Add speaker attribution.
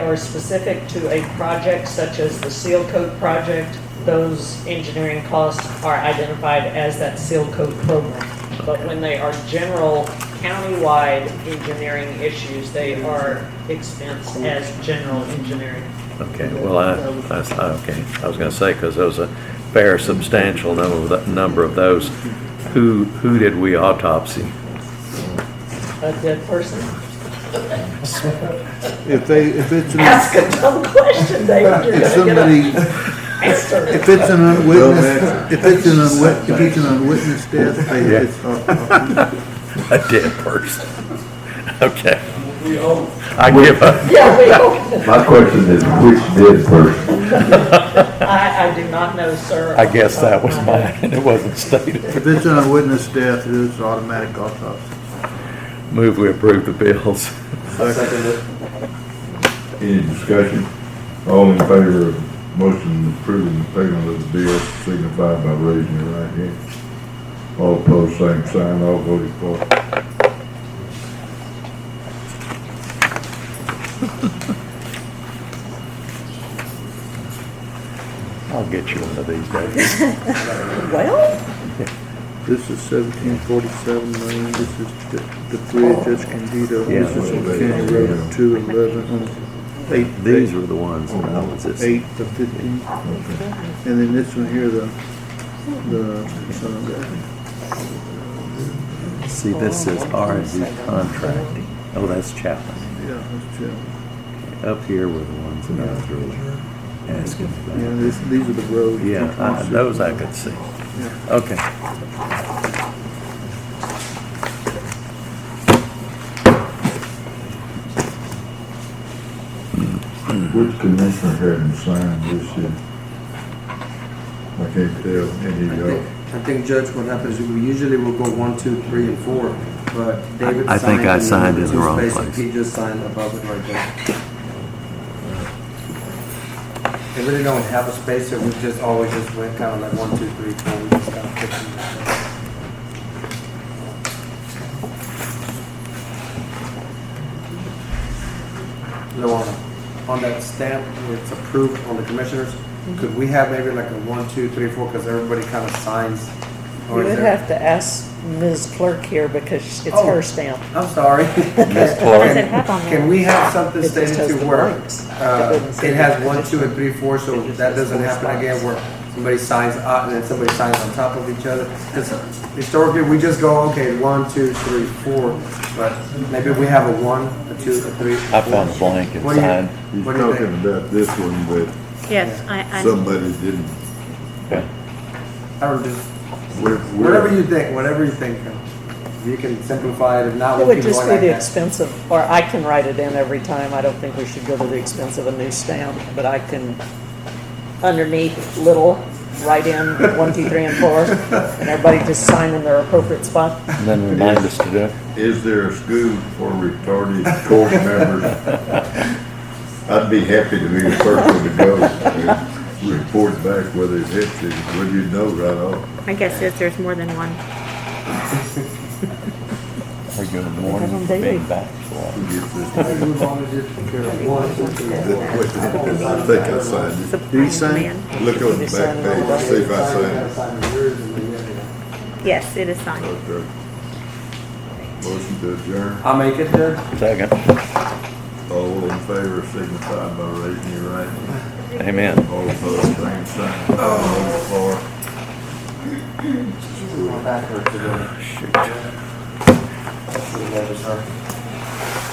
Speaker 1: are specific to a project such as the seal coat project, those engineering costs are identified as that seal coat program. But when they are general countywide engineering issues, they are expensed as general engineering.
Speaker 2: Okay, well, I, I, I- okay, I was gonna say, because there was a fair substantial number of, th- number of those. Who, who did we autopsy?
Speaker 1: A dead person?
Speaker 3: If they, if it's, an-
Speaker 1: Ask a dumb question, David, you're
Speaker 3: if
Speaker 1: gonna
Speaker 3: somebody,
Speaker 1: get an answer.
Speaker 3: if it's an unwitnessed, if it's an unwit, if it's an unwitnessed death, they, it's, uh,
Speaker 2: A dead person. Okay. I give up.
Speaker 1: Yeah, we, hope-
Speaker 4: My question is, which did first?
Speaker 1: I, I do not know, sir. Uh,
Speaker 2: I guess that was mine, and it wasn't stated.
Speaker 3: if it's an unwitnessed death, it is automatic autopsy.
Speaker 2: Move we approve the bills.
Speaker 4: Any discussion? All in favor of motion approving the payment of the bill signify by raising your right hand. All opposed, same sign, all voted for.
Speaker 2: I'll get you one of these days.
Speaker 1: Well,
Speaker 3: This is seventeen forty-seven million, this is the, the bridge, that's Candido, this is on County Road two eleven, on eight,
Speaker 2: These were the ones, that I was
Speaker 3: eight,
Speaker 2: just-
Speaker 3: eight to fifteen. And then this one here, the, the, uh,
Speaker 2: see, this is R and D contracting. Oh, that's Chapman.
Speaker 3: yeah, that's Jim.
Speaker 2: Up here were the ones that I was really asking
Speaker 3: Yeah,
Speaker 2: about.
Speaker 3: this, these are the roads.
Speaker 2: Yeah, I- those I could see. Okay.
Speaker 4: Which commissioner hadn't signed this yet? I can't tell, any
Speaker 5: I
Speaker 4: of
Speaker 5: think-
Speaker 4: y'all.
Speaker 5: I think, Judge, what happens is we usually will go one, two, three, and four, but David signed.
Speaker 2: I think I signed in the
Speaker 5: two
Speaker 2: wrong
Speaker 5: spaces.
Speaker 2: place.
Speaker 5: He just signed above it right there. They really don't have a space, so we just always just went kind of like one, two, three, four, we just kind of picked them. Luana, on that stamp, where it's approved on the commissioners,
Speaker 1: Mm-hmm.
Speaker 5: could we have maybe like a one, two, three, four, because everybody kind of signs?
Speaker 1: you
Speaker 5: or is
Speaker 1: would
Speaker 5: there-
Speaker 1: have to ask Ms. Clerk here because it's
Speaker 5: Oh.
Speaker 1: her stamp.
Speaker 5: I'm sorry.
Speaker 2: Ms. Clark.
Speaker 6: Does it have on there?
Speaker 5: Can we have something
Speaker 1: It just
Speaker 5: stated
Speaker 1: has
Speaker 5: to
Speaker 1: the
Speaker 5: where,
Speaker 1: blanks.
Speaker 5: uh,
Speaker 1: It doesn't
Speaker 5: it
Speaker 1: say
Speaker 5: has
Speaker 1: the
Speaker 5: one, two, and
Speaker 1: position.
Speaker 5: three, four, so
Speaker 1: It just
Speaker 5: that
Speaker 1: has
Speaker 5: doesn't
Speaker 1: four
Speaker 5: happen
Speaker 1: spots.
Speaker 5: again where somebody signs out and then somebody signs on top of each other? 'Cause historically, we just go, okay, one, two, three, four, but maybe we have a one, a two, a three.
Speaker 2: I found a blank and
Speaker 5: What do you-
Speaker 2: signed.
Speaker 4: You're
Speaker 5: What do you
Speaker 4: talking
Speaker 5: think?
Speaker 4: about this one, but
Speaker 6: Yes, I, I,
Speaker 4: somebody didn't.
Speaker 2: Okay.
Speaker 5: I don't do,
Speaker 4: We're- we're-
Speaker 5: whatever you think, whatever you think. You can simplify it, if not,
Speaker 1: It
Speaker 5: we'll
Speaker 1: would
Speaker 5: keep going
Speaker 1: just be
Speaker 5: like
Speaker 1: the
Speaker 5: that.
Speaker 1: expense of, or I can write it in every time. I don't think we should go to the expense of a new stamp, but I can, underneath little, write in one, two, three, and four, and everybody just sign in their appropriate spot.
Speaker 2: And then remind us to do it.
Speaker 4: Is there a school for retarded court members? I'd be happy to be the first one to go and report back whether it hits it, whether you know right off.
Speaker 6: I guess if there's more than one.
Speaker 2: Are you in the
Speaker 1: Have
Speaker 2: morning,
Speaker 1: them
Speaker 2: big
Speaker 1: daily.
Speaker 2: back slot?
Speaker 4: who gets
Speaker 5: I
Speaker 4: this.
Speaker 5: think we've already did one, two, three,
Speaker 4: The
Speaker 5: four.
Speaker 4: question, I think I signed it.
Speaker 6: Supply and
Speaker 3: sign?
Speaker 6: demand.
Speaker 4: Look on the back page, and see if I signed it.
Speaker 6: Yes, it is signed.
Speaker 4: Okay. Motion to adjourn.
Speaker 5: I'll make it there.
Speaker 2: Second.
Speaker 4: All in favor signify by raising your right hand.
Speaker 2: Amen.
Speaker 4: All opposed, same sign. All for.
Speaker 5: We're backward to the. Shoot. To the left, sorry.